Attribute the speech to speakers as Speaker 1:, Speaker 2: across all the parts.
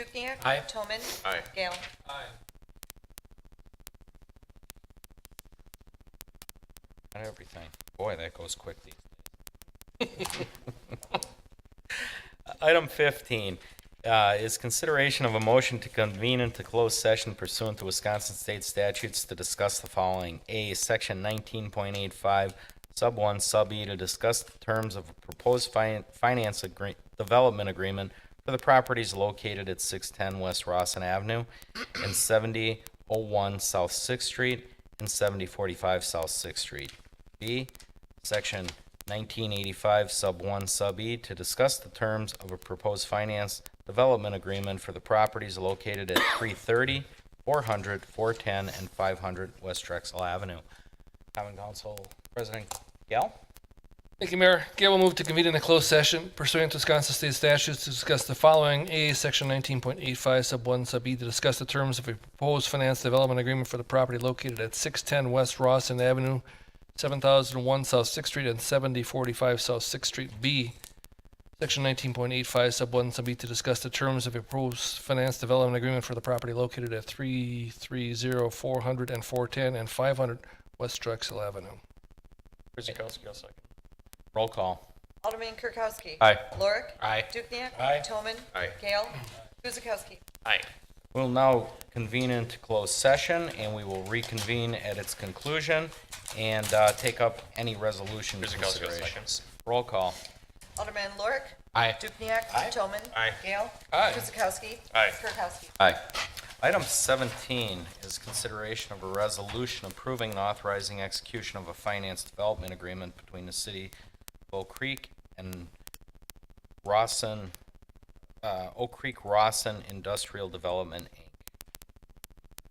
Speaker 1: Dukenyak.
Speaker 2: Aye.
Speaker 1: Toman.
Speaker 3: Aye.
Speaker 1: Gale.
Speaker 2: On everything. Boy, that goes quick these days. Item 15 uh, is consideration of a motion to convene into closed session pursuant to Wisconsin State statutes to discuss the following. A, Section 19.85, Sub 1, Sub E, to discuss the terms of a proposed fin- finance agree- development agreement for the properties located at 610 West Rossin Avenue and 7001 South Sixth Street and 7045 South Sixth Street. B, Section 1985, Sub 1, Sub E, to discuss the terms of a proposed finance development agreement for the properties located at 330, 400, 410, and 500 West Drexel Avenue. Common Council President Gale?
Speaker 4: Thank you, Mayor. Gail will move to convene in a closed session pursuant to Wisconsin State statutes to discuss the following. A, Section 19.85, Sub 1, Sub E, to discuss the terms of a proposed finance development agreement for the property located at 610 West Rossin Avenue, 7001 South Sixth Street, and 7045 South Sixth Street. B, Section 19.85, Sub 1, Sub E, to discuss the terms of a proposed finance development agreement for the property located at 330, 400, and 410, and 500 West Drexel Avenue.
Speaker 2: Roll call.
Speaker 1: Alderman Kirkowski.
Speaker 2: Aye.
Speaker 1: Lorik.
Speaker 2: Aye.
Speaker 1: Dukenyak.
Speaker 2: Aye.
Speaker 1: Toman.
Speaker 3: Aye.
Speaker 1: Gale. Guzekowski.
Speaker 3: Aye.
Speaker 2: We'll now convene into closed session, and we will reconvene at its conclusion and uh, take up any resolution
Speaker 3: Mr. Gale, second.
Speaker 2: considerations. Roll call.
Speaker 1: Alderman Lorik.
Speaker 2: Aye.
Speaker 1: Dukenyak. Toman.
Speaker 3: Aye.
Speaker 1: Gale.
Speaker 4: Aye.
Speaker 1: Guzekowski.
Speaker 3: Aye.
Speaker 1: Kirkowski.
Speaker 2: Aye. Item 17 is consideration of a resolution approving and authorizing execution of a finance development agreement between the city of Oak Creek and Rossin, uh, Oak Creek Rossin Industrial Development, Inc.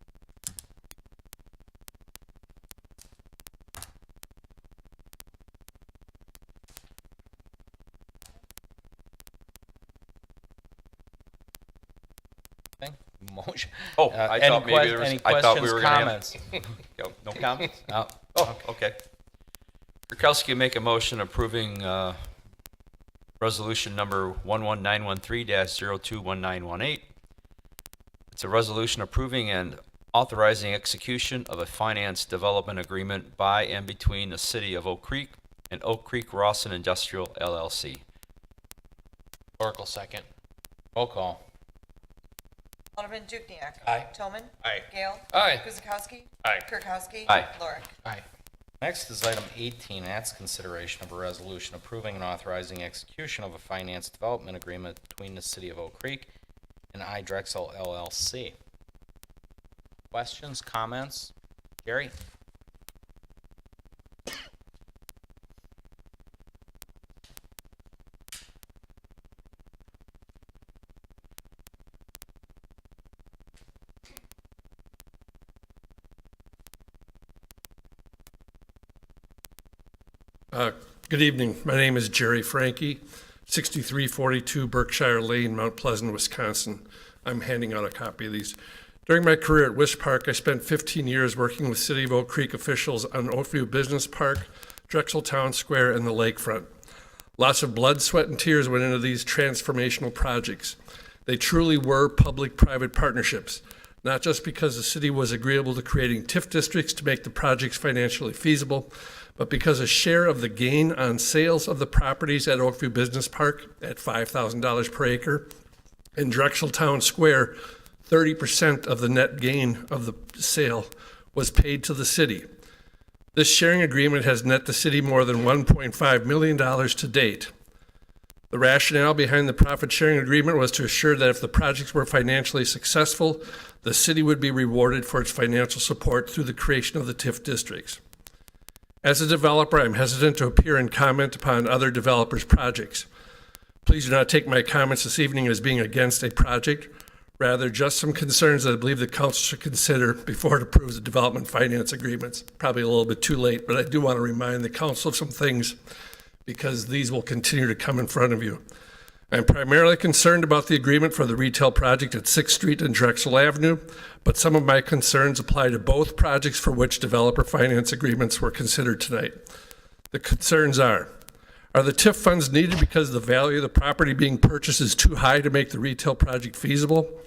Speaker 2: Thing? Motion.
Speaker 3: Oh,
Speaker 2: Uh,
Speaker 3: I
Speaker 2: any
Speaker 3: thought maybe
Speaker 2: que-
Speaker 3: there was-
Speaker 2: any
Speaker 3: I thought we
Speaker 2: questions,
Speaker 3: were gonna have-
Speaker 2: comments?
Speaker 3: Yo, No comments?
Speaker 2: No.
Speaker 3: Oh, okay. Kirkowski make a motion approving uh, resolution number 11913-021918. It's a resolution approving and authorizing execution of a finance development agreement by and between the city of Oak Creek and Oak Creek Rawson Industrial LLC.
Speaker 5: Oracle second.
Speaker 2: Roll call.
Speaker 1: Alderman Dukenyak.
Speaker 5: Aye.
Speaker 1: Toman.
Speaker 3: Aye.
Speaker 1: Gale.
Speaker 4: Aye.
Speaker 1: Guzekowski.
Speaker 3: Aye.
Speaker 1: Kirkowski.
Speaker 3: Aye.
Speaker 1: Lorik.
Speaker 5: Aye.
Speaker 2: Next is item 18, and that's consideration of a resolution approving and authorizing execution of a finance development agreement between the City of Oak Creek and iDrexel LLC. Questions, comments? Gary?
Speaker 6: Uh, Good evening. My name is Jerry Frankie, 6342 Berkshire Lane, Mount Pleasant, Wisconsin. I'm handing out a copy of these. During my career at Wish Park, I spent 15 years working with City of Oak Creek officials on Oakview Business Park, Drexel Town Square, and the lakefront. Lots of blood, sweat, and tears went into these transformational projects. They truly were public private partnerships, not just because the city was agreeable to creating TIF districts to make the projects financially feasible, but because a share of the gain on sales of the properties at Oakview Business Park at $5,000 per acre in Drexel Town Square, 30% of the net gain of the sale was paid to the city. This sharing agreement has net the city more than $1.5 million to date. The rationale behind the profit sharing agreement was to assure that if the projects were financially successful, the city would be rewarded for its financial support through the creation of the TIF districts. As a developer, I'm hesitant to appear and comment upon other developers' projects. Please do not take my comments this evening as being against a project, rather just some concerns that I believe the council should consider before it approves the development finance agreements. Probably a little bit too late, but I do want to remind the council of some things because these will continue to come in front of you. I'm primarily concerned about the agreement for the retail project at Sixth Street and Drexel Avenue, but some of my concerns apply to both projects for which developer finance agreements were considered tonight. The concerns are, Are the TIF funds needed because the value of the property being purchased is too high to make the retail project feasible?